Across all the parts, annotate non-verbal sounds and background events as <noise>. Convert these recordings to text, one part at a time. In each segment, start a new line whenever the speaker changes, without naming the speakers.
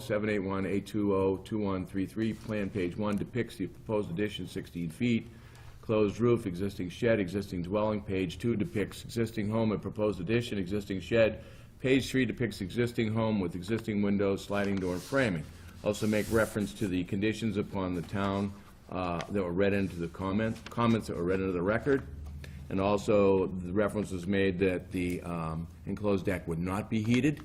20-781-820-2133, Plan Page 1 depicts the proposed addition 16 feet, closed roof, existing shed, existing dwelling. Page 2 depicts existing home and proposed addition, existing shed. Page 3 depicts existing home with existing windows, sliding door, and framing. Also make reference to the conditions upon the town uh, that were read into the comments, comments that were read into the record. And also, the reference was made that the um, enclosed deck would not be heated.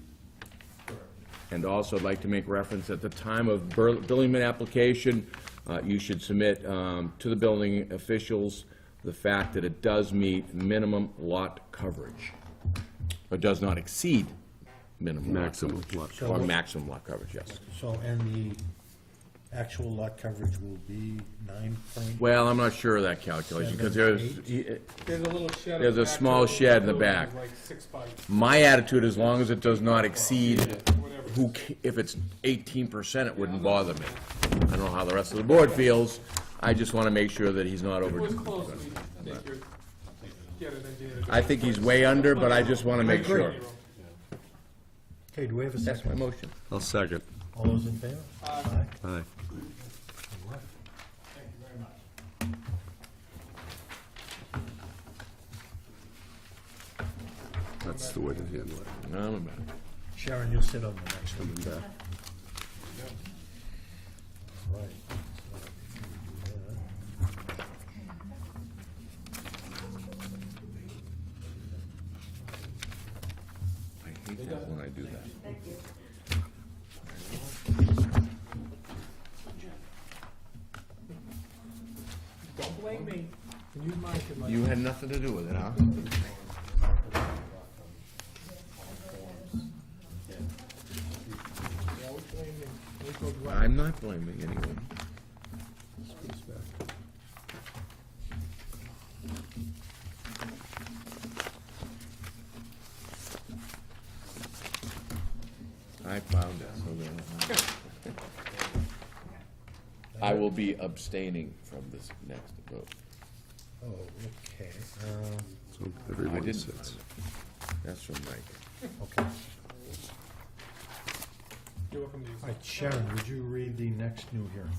And also, I'd like to make reference, at the time of bur- building permit application, uh, you should submit um, to the building officials the fact that it does meet minimum lot coverage, or does not exceed minimum lot
Maximum
coverage.
lot
Or maximum lot coverage, yes.
So, and the actual lot coverage will be nine point?
Well, I'm not sure of that calculation, because there's,
There's a little shed. in
There's
the
a
back
small
of the
shed in the
building,
back.
Like six by,
my attitude, as long as it does not exceed,
whatever.
who, ca- if it's eighteen percent, it wouldn't bother me. I don't know how the rest of the board feels, I just wanna make sure that he's not
It
over.
was close, we, I think you're, get an idea. of it.
I think he's way under, but I just wanna make sure.
Okay, do we have a
That's
second?
my motion.
I'll second.
All those in favor? Aye.
Aye.
Good luck.
That's the way to handle it.
No, I'm about it.
Sharon, you'll sit on the next one.
Coming back.
Right.
I hate that when I do that.
Don't blame me, you might, you might.
You had nothing to do with it, huh?
Always blame me. Always go blame
I'm not blaming anyone. I found it, so there. <laughs> I will be abstaining from this next vote.
Oh, okay, um,
So
I
everyone
didn't
sits.
find it. That's from Mike.
okay.
You're welcome to use
All
it.
right, Sharon, would you read the next new hearing?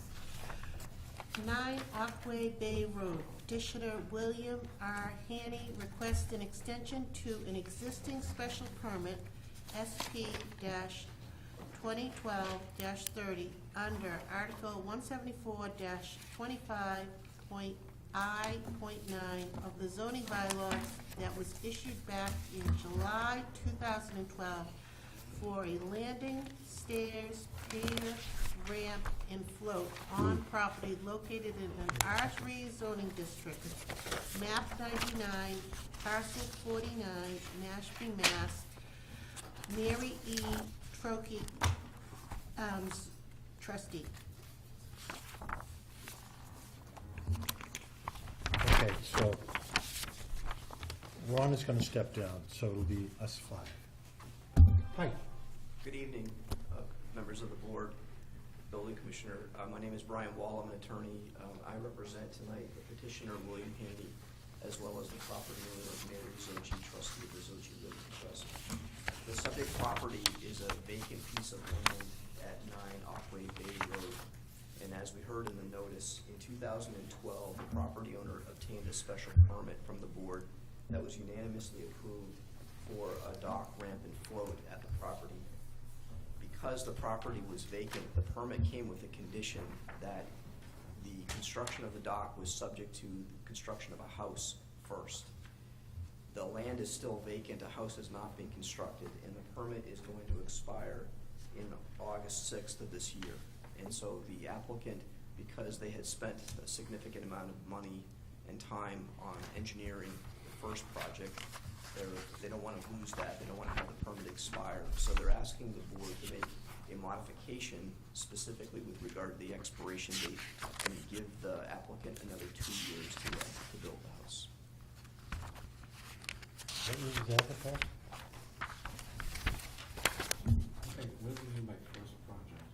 Nine Aquay Bay Road. Petitioner William R. Hanny requests an extension to an existing special permit, SP twenty twelve thirty, under Article one seventy-four twenty-five point I point nine of the zoning bylaw that was issued back in July two thousand and twelve for a landing, stairs, pier, ramp, and float on property located in an R three zoning district. Map ninety-nine, parcel forty-nine, Mashpee, Mass. Mary E. Trokey, um, s- trustee.
Okay, so Ron is gonna step down, so it'll be us five. Hi,
Good evening, uh, members of the board, building commissioner. Uh, My name is Brian Wall, I'm an attorney. Um, I represent tonight the petitioner William Handy, as well as the property owner of Mary Zochi, trustee of the Zochi Realty Trust. The subject property is a vacant piece of land at 9 Aquay Bay Road. And as we heard in the notice, in 2012, the property owner obtained a special permit from the board that was unanimously approved for a dock ramp and float at the property because the property was vacant, the permit came with a condition that the construction of the dock was subject to construction of a house first. The land is still vacant, a house has not been constructed, and the permit is going to expire in August sixth of this year. And so the applicant, because they had spent a significant amount of money and time on engineering the first project, they're, they don't wanna lose that, they don't wanna have the permit expire. So they're asking the board to make a modification specifically with regard to the expiration date and give the applicant another two years to, uh, to build the house.
what was that about?
Hey, when did you make first project?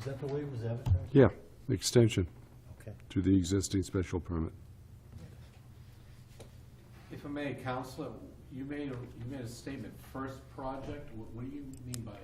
Is that the way it was advertised?
Yeah, extension
Okay.
to the existing special permit.
If I may, Counselor, you made a, you made a statement, first project, what, what do you mean by